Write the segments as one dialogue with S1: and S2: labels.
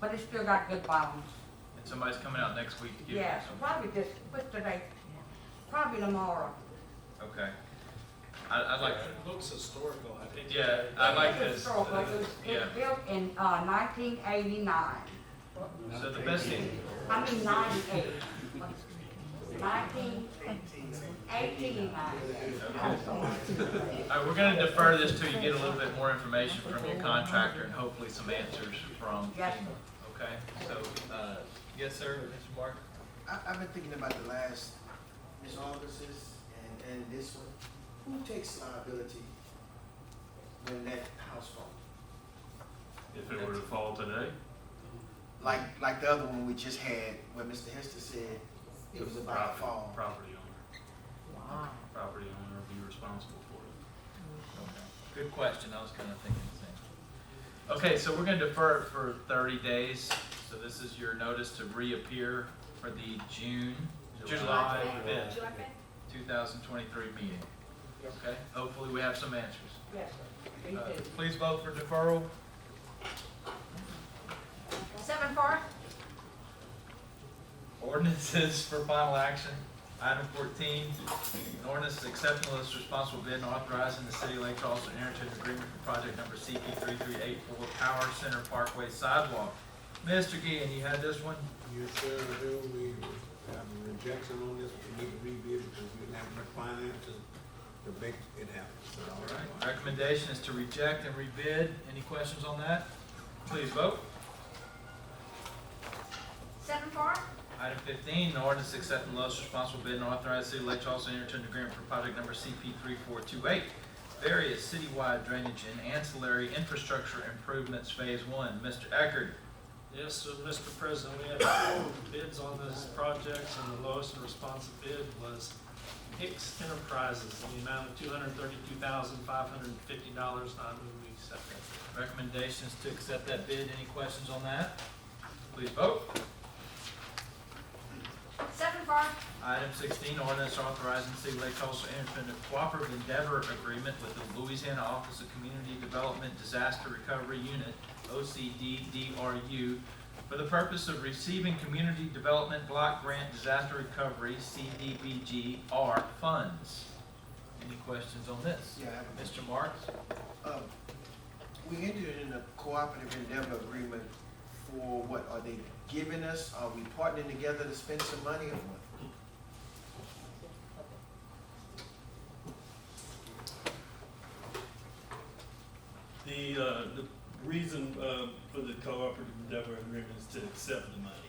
S1: but it's still got good bones.
S2: And somebody's coming out next week to give you
S1: Yeah, so
S2: some.
S1: probably just, what's today? Probably tomorrow.
S2: Okay. I, I'd like,
S3: It looks historical, I think.
S2: yeah, I like
S1: It's
S2: this. uh,
S1: historical. It was, it
S2: Yeah,
S1: was built in, uh, nineteen eighty-nine.
S2: so the best thing,
S1: I mean ninety-eight. Nineteen, eighteen-nine.
S2: okay. All right, uh, we're gonna defer this till you get a little bit more information from your contractor and hopefully some answers from
S1: Yes,
S2: FEMA. Okay, so, uh, yes, sir, Mr. Mark?
S4: I, I've been thinking about the last Ms. August's and, and this one. Who takes liability when that house falls?
S5: If it were to fall today,
S4: Like, like the other one we just had, where Mr. Hester said it was about to
S5: property,
S4: fall.
S5: property owner. Property owner would be responsible for it.
S2: Okay. Good question, I was kinda thinking the same. Okay, so we're gonna defer it for thirty days, so this is your notice to reappear for the June, July fifth, two thousand twenty-three meeting. Okay, hopefully we have some answers.
S1: yes, sir. Me
S2: Uh,
S1: too.
S2: Please vote for deferral.
S6: Seven four?
S2: Ordinances for final action. Item fourteen, an ordinance accepting list responsible bid and authorizing the city of Lake Charles to enter into an agreement for project number CP three three eight four Power Center Parkway Sidewalk. Mr. Gideon, you had this one?
S7: Yes, sir, Bill, we have a rejection on this, we need to review it because we didn't have enough finance to, to make it happen, so.
S2: All right. Recommendation is to reject and rebid. Any questions on that? Please vote.
S6: Seven four?
S2: Item fifteen, an ordinance accepting lowest responsible bid and authorizing city of Lake Charles to enter into an agreement for project number CP three four two eight, various citywide drainage and ancillary infrastructure improvements, phase one. Mr. Eckert,
S3: Yes, so Mr. President, we had four bids on this project, and the lowest responsive bid was Hicks Enterprises in the amount of two hundred thirty-two thousand, five hundred and fifty dollars. I move we accept that.
S2: recommendations to accept that bid. Any questions on that? Please vote.
S6: Seven four?
S2: Item sixteen, ordinance authorizing the city of Lake Charles to enter into a cooperative endeavor agreement with the Louisiana Office of Community Development Disaster Recovery Unit, OCDDRU, for the purpose of receiving Community Development Block Grant Disaster Recovery, CDBGR funds. Any questions on this?
S4: Yeah, I have a
S2: Mr. Marks?
S4: Um, We entered in a cooperative endeavor agreement for what, are they giving us, are we partnering together to spend some money or what?
S8: The, uh, the reason, uh, for the cooperative endeavor agreement is to accept the money.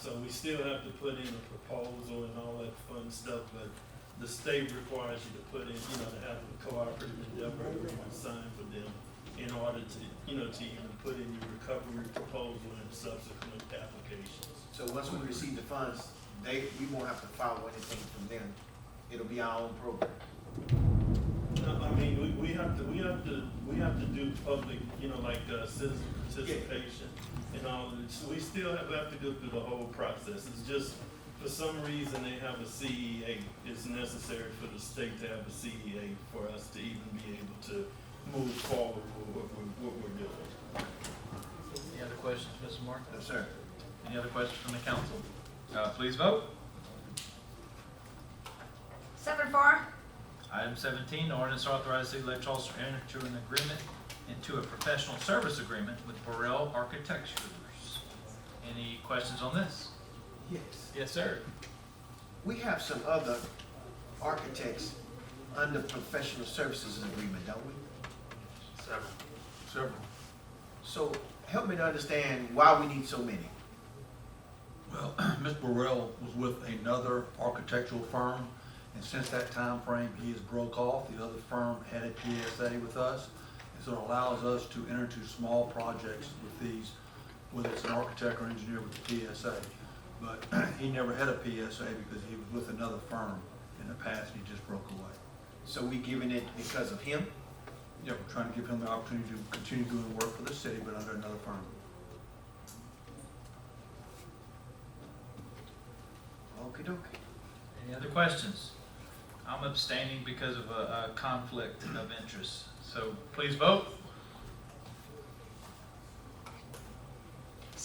S8: So we still have to put in a proposal and all that fun stuff, but the state requires you to put in, you know, to have a cooperative endeavor agreement signed for them in order to, you know, to even put in your recovery proposal and subsequent applications.
S4: So once we receive the funds, they, we won't have to follow anything from them, it'll be our own program.
S8: No, I mean, we, we have to, we have to, we have to do public, you know, like, uh, citizen participation and all, of it. So we still have, have to go through the whole process, it's just, for some reason, they have a CEA, it's necessary for the state to have a CEA for us to even be able to move forward with what we're, what we're doing.
S2: Any other questions, Mr. Marks?
S4: No, sir.
S2: Any other questions from the council? Uh, please vote.
S6: Seven four?
S2: Item seventeen, ordinance authorizing the Lake Charles to enter into an agreement into a professional service agreement with Burrell Architectures. Any questions on this?
S4: Yes.
S2: Yes, sir.
S4: We have some other architects under professional services agreement, don't we?
S5: Several.
S4: Several. So help me to understand why we need so many.
S9: Well, Ms. Burrell was with another architectural firm, and since that time frame, he has broke off. The other firm had a PSA with us, and so it allows us to enter into small projects with these, whether it's an architect or engineer with a PSA. But he never had a PSA because he was with another firm in the past, and he just broke away.
S4: So we giving it because of him?
S9: Yeah, we're trying to give him the opportunity to continue doing work for the city, but under another firm.
S4: Okey dokey.
S2: Any other questions? I'm abstaining because of a, a conflict of interest, so please vote.